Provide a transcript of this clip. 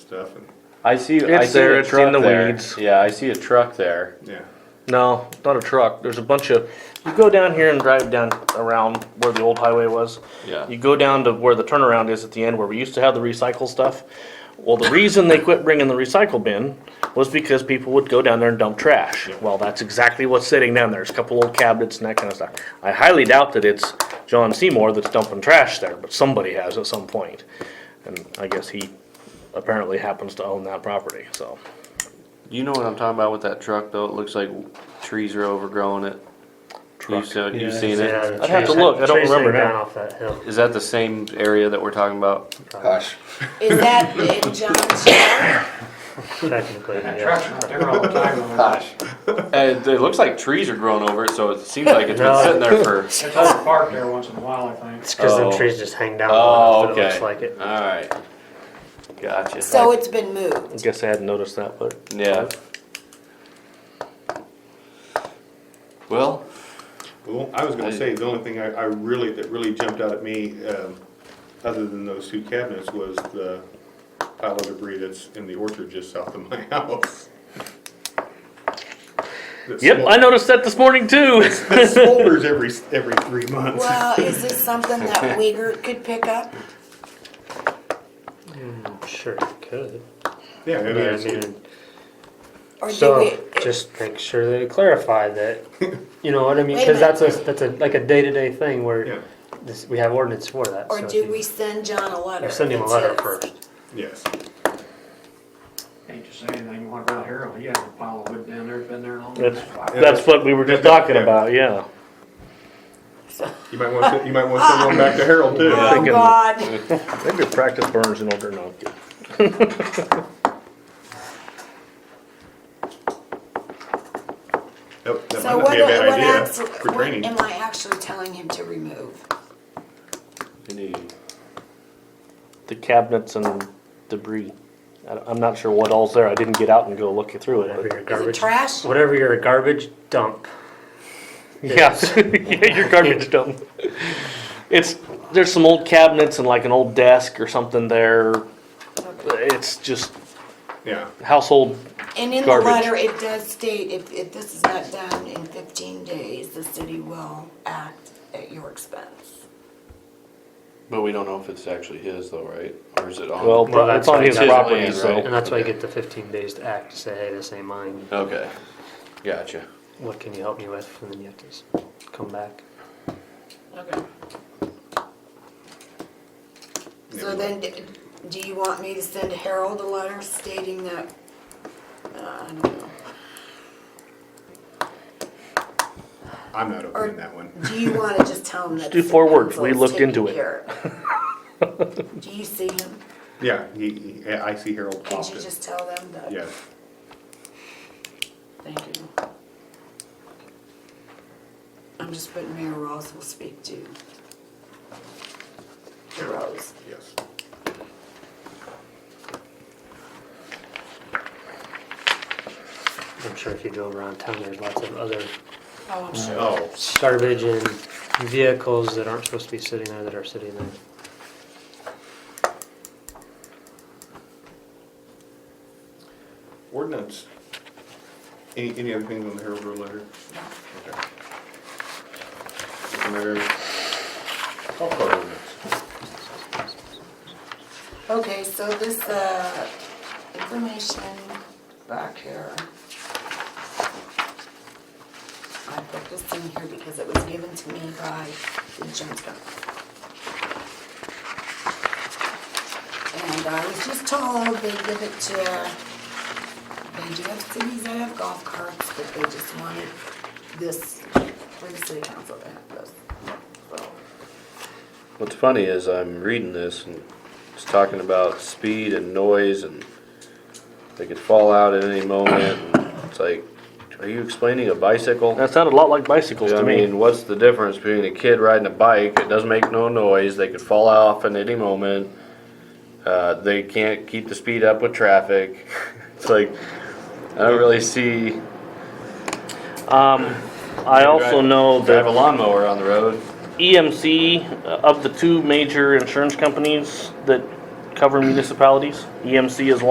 stuff and, I see. I It's see there, a it's in truck the there. weeds. Yeah, I see a truck there. yeah. No, not a truck. There's a bunch of. You go down here and drive down around where the old highway was. Yeah. You go down to where the turnaround is at the end, where we used to have the recycle stuff. Well, the reason they quit bringing the recycle bin was because people would go down there and dump trash. Well, that's exactly what's sitting down there. There's a couple old cabinets and that kind of stuff. I highly doubt that it's John Seymour that's dumping trash there, but somebody has at some point. And I guess he apparently happens to own that property, so. You know what I'm talking about with that truck though? It looks like trees are overgrowing it. You've seen, you've seen it. I'd have to look. I don't remember Down now. off that hill. Is that the same area that we're talking about? Gosh. Is that in John's yard? Technically, yeah. Trucks are out there all the time. and they're- And it looks like trees are growing over it, so it seems like it's been No. sitting there for. It's over parked there once in a while, I think. It's because Oh. the trees just hang down. Oh, off, but okay. It looks like it. All right. Gotcha. So it's been moved. I guess I hadn't noticed that, but. yeah. Well, Well, I was gonna say, the only thing I, I really, that really jumped out at me, um, other than those two cabinets, was the pile of debris that's in the orchard just south of my house. That Yep, smol- I noticed that this morning too. That smolders every, every three months. Well, is this something that Uyghur could pick up? I'm sure it could. Yeah, I mean, Yeah, I it's- mean, Or do we? So just make sure that you clarify that, you know what I mean? Wait a Because that's a, that's a, like a day-to-day thing yeah, where this, we have ordinance for that. Or so if do you- we send John a letter? You send him a that letter says- first. yes. Hate to say anything, you want to go out here, well, you have a pile of wood down there, it's been there long. That's, that's what we were just talking about, yeah. You might want to, you might want to send one back to Harold too. Oh, Thinking- God. Maybe practice burns in order not to. That that So might not what, be a bad what idea acts, for what training. am I actually telling him to remove? any The cabinets and debris. I don't- I'm not sure what all's there. I didn't get out and go look through Whatever it. your Is it garbage, trash? whatever your garbage dump. but- Yeah, Yeah, your garbage dump. It's, there's some old cabinets and like an old desk or something there. It's just Yeah, household, And in the Garbage. letter, it does state, if, if this is not done in fifteen days, the city will act at your expense. but we don't know if it's actually his though, right? Or is it on? well, Well, it's that's on like his his property, land, so. right? And that's why you get the fifteen days to act, say, hey, this ain't mine. Okay. Gotcha. What can you help me with? And then you have to s- come back. Okay. So then, d- do you want me to send Harold a letter stating that, uh, I don't know. I'm not Or- opening that one. Do you wanna just tell him that? do the four words. council We is looked taking into it. care of it? Do you see him? Yeah, he, he- I see Harold Could you often. just tell them that? Yes, Thank you. I'm just putting Mayor Ross will speak to to Rose. yes. I'm sure if you go around town, there's lots of other Oh, Uh, I'm sure. Oh, garbage and vehicles that aren't supposed to be sitting there that are sitting there. ordinance. Any, any other things on the Harold Road letter? Okay. Mayor, call for ordinance. Okay, so this, uh, information back here. I put this in here because it was given to me by the insurance company. And I was just told they give it to, they do have cities that have golf carts, but they just wanted this, for the city council to have this. So, What's funny is I'm reading this and it's talking about speed and noise and they could fall out at any moment. and It's like, are you explaining a bicycle? That sounded a lot like bicycles I to me. mean, what's the difference between a kid riding a bike? It doesn't make no noise. They could fall off at any moment. Uh, they can't keep the speed up with traffic. It's like, I don't really see. Um, I also know that. Drive a lawnmower on the road. EMC, uh, of the two major insurance companies that cover municipalities, EMC is one.